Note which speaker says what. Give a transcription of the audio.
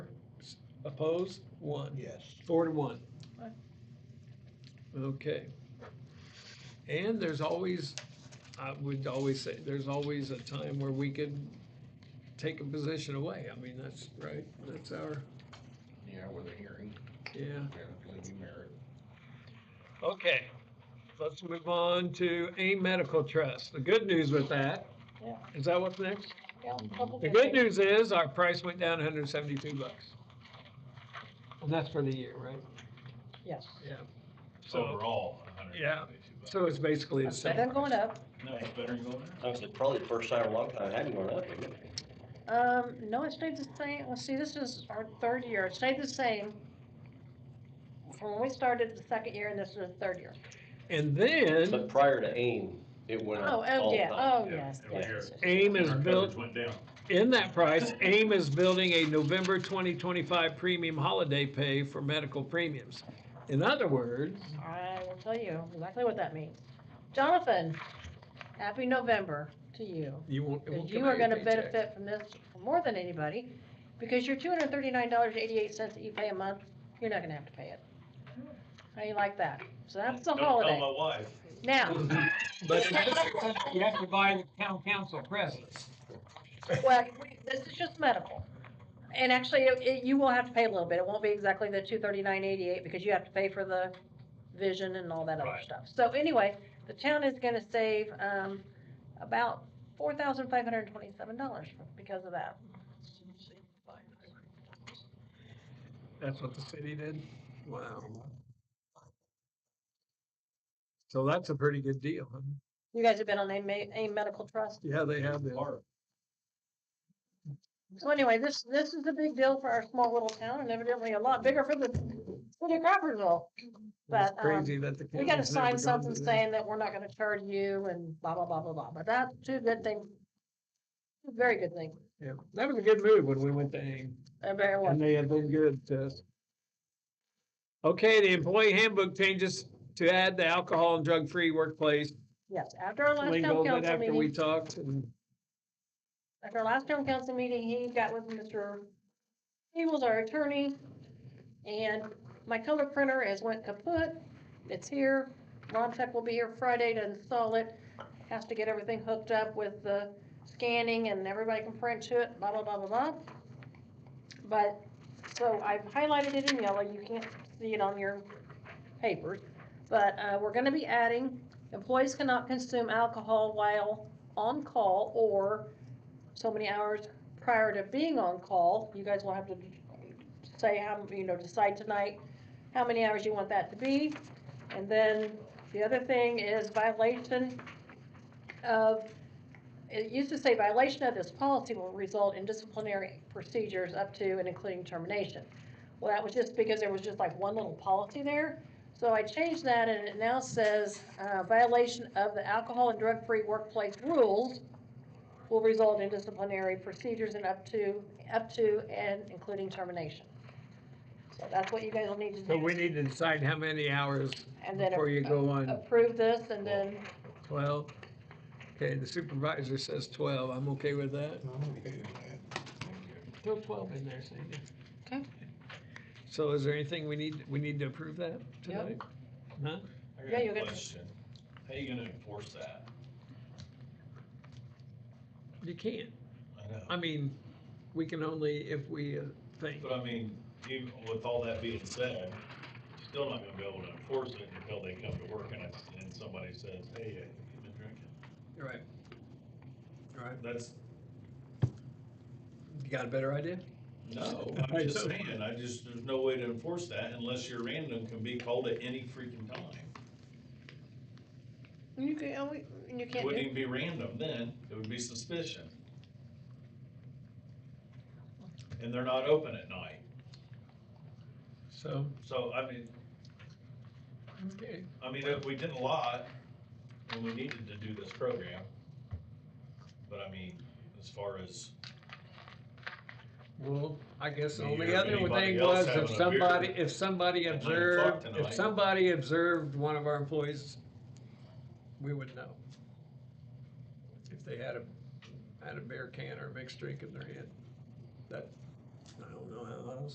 Speaker 1: Opposed? One.
Speaker 2: Yes.
Speaker 1: Four to one.
Speaker 3: Aye.
Speaker 1: Okay. And there's always, I would always say, there's always a time where we could take a position away. I mean, that's, right, that's our,
Speaker 2: Yeah, with a hearing,
Speaker 1: yeah.
Speaker 2: we have to leave you merit.
Speaker 1: Okay, let's move on to AIM Medical Trust. The good news with that,
Speaker 3: Yeah.
Speaker 1: is that what's next?
Speaker 3: Yeah, couple
Speaker 1: The good news
Speaker 3: days.
Speaker 1: is our price went down hundred and seventy-two bucks. And that's for the year, right?
Speaker 3: Yes.
Speaker 1: Yeah. So,
Speaker 4: Overall, a hundred.
Speaker 1: Yeah. so it's basically the
Speaker 3: That's better than
Speaker 1: same.
Speaker 3: going up.
Speaker 4: No, it's better than going
Speaker 5: That was probably the first time in a long time I hadn't gone up, isn't it?
Speaker 3: Um, no, it stayed the same. Well, see, this is our third year. It stayed the same from when we started the second year and this is the third year.
Speaker 1: And then
Speaker 5: But prior to AIM, it went
Speaker 3: Oh,
Speaker 5: up all
Speaker 3: oh,
Speaker 5: the
Speaker 3: yeah,
Speaker 5: time.
Speaker 3: oh,
Speaker 4: Yeah,
Speaker 3: yes,
Speaker 4: every
Speaker 3: yes.
Speaker 4: year.
Speaker 3: yes, yes.
Speaker 1: AIM
Speaker 4: down.
Speaker 1: is
Speaker 4: Our
Speaker 1: built,
Speaker 4: coverage went down.
Speaker 1: in that price, AIM is building a November twenty twenty-five premium holiday pay for medical premiums. In other words,
Speaker 3: I will tell you exactly what that means. Jonathan, happy November to you.
Speaker 1: you won't, it
Speaker 3: Because
Speaker 1: won't
Speaker 3: you
Speaker 1: come out
Speaker 3: are
Speaker 1: of your
Speaker 3: gonna
Speaker 1: paycheck.
Speaker 3: benefit from this more than anybody, because your two hundred and thirty-nine dollars and eighty-eight cents that you pay a month, you're not gonna have to pay it. How you like that? So that's the
Speaker 4: Don't tell
Speaker 3: holiday.
Speaker 4: my wife.
Speaker 3: Now,
Speaker 1: But in this instance, you have to buy the town council presents.
Speaker 3: well, this is just medical. And actually, it, it- you will have to pay a little bit. It won't be exactly the two thirty-nine eighty-eight, because you have to pay for the vision and all that other
Speaker 4: Right.
Speaker 3: stuff. So anyway, the town is gonna save, um, about four thousand five hundred and twenty-seven dollars because of that.
Speaker 1: That's what the city did? Wow. So that's a pretty good deal, huh?
Speaker 3: You guys have been on a ma- a medical trust?
Speaker 1: Yeah, they have been.
Speaker 3: So anyway, this, this is a big deal for our small little town and evidently a lot bigger for the city of Crawfordsville.
Speaker 1: It's
Speaker 3: But, um,
Speaker 1: crazy that the.
Speaker 3: we gotta
Speaker 1: county's never
Speaker 3: sign
Speaker 1: gone
Speaker 3: something
Speaker 1: to this.
Speaker 3: saying that we're not gonna charge you and blah, blah, blah, blah, blah, but that's two good things. Two Very good thing,
Speaker 1: Yeah, that was a good move when we went to AIM,
Speaker 3: a very
Speaker 1: and
Speaker 3: one.
Speaker 1: they have been good to us. Okay, the employee handbook changes to add the alcohol and drug-free workplace.
Speaker 3: Yes, after our last town
Speaker 1: Lingo that
Speaker 3: council
Speaker 1: after we
Speaker 3: meeting,
Speaker 1: talked and
Speaker 3: after our last town council meeting, he got with Mr. He was our attorney. And my color printer has went kaput. It's here. Ron Tech will be here Friday to install it. Has to get everything hooked up with the scanning and everybody can print to it, blah, blah, blah, blah, blah. But, so I've highlighted it in yellow. You can't see it on your papers. But, uh, we're gonna be adding, employees cannot consume alcohol while on call or so many hours prior to being on call. You guys will have to say how, you know, decide tonight how many hours you want that to be. And then the other thing is violation of, it used to say violation of this policy will result in disciplinary procedures up to and including termination. Well, that was just because there was just like one little policy there. So I changed that and it now says, uh, violation of the alcohol and drug-free workplace rules will result in disciplinary procedures and up to, up to and including termination. So that's what you guys will need to do.
Speaker 1: so we need to decide how many hours
Speaker 3: And then
Speaker 1: before you
Speaker 3: a-
Speaker 1: go on.
Speaker 3: approve this and then,
Speaker 1: Twelve. Okay, the supervisor says twelve. I'm okay with that. Throw twelve in there, Sandy.
Speaker 3: Okay.
Speaker 1: So is there anything we need, we need to approve that tonight? Huh?
Speaker 4: I got
Speaker 3: Yeah,
Speaker 4: a
Speaker 3: you'll get-
Speaker 4: question. How you gonna enforce that?
Speaker 1: You can't.
Speaker 4: I know.
Speaker 1: I mean, we can only if we uh, think.
Speaker 4: But I mean, even with all that being said, you're still not gonna be able to enforce it until they come to work and, it's- and somebody says, hey, uh, you've been drinking.
Speaker 1: Right. Right.
Speaker 4: That's,
Speaker 1: You got a better idea?
Speaker 4: no,
Speaker 1: I
Speaker 4: I'm just
Speaker 1: know.
Speaker 4: saying, I just, there's no way to enforce that unless your random can be called at any freaking time.
Speaker 3: you can, oh, we- you
Speaker 4: It
Speaker 3: can't
Speaker 4: wouldn't
Speaker 3: do,
Speaker 4: even be random then, it would be suspicion. And they're not open at night,
Speaker 1: So,
Speaker 4: so I mean,
Speaker 1: okay.
Speaker 4: I mean, if we did a lot, and we needed to do this program. But I mean, as far as,
Speaker 1: Well, I guess the
Speaker 4: Do you
Speaker 1: only
Speaker 4: have
Speaker 1: other
Speaker 4: anybody
Speaker 1: thing
Speaker 4: else
Speaker 1: was if
Speaker 4: having a beer
Speaker 1: somebody, if somebody
Speaker 4: at nine o'clock
Speaker 1: observed, if
Speaker 4: tonight?
Speaker 1: somebody observed one of our employees, we would know. If they had a, had a beer can or a mixed drink in their hand, that, I don't know how else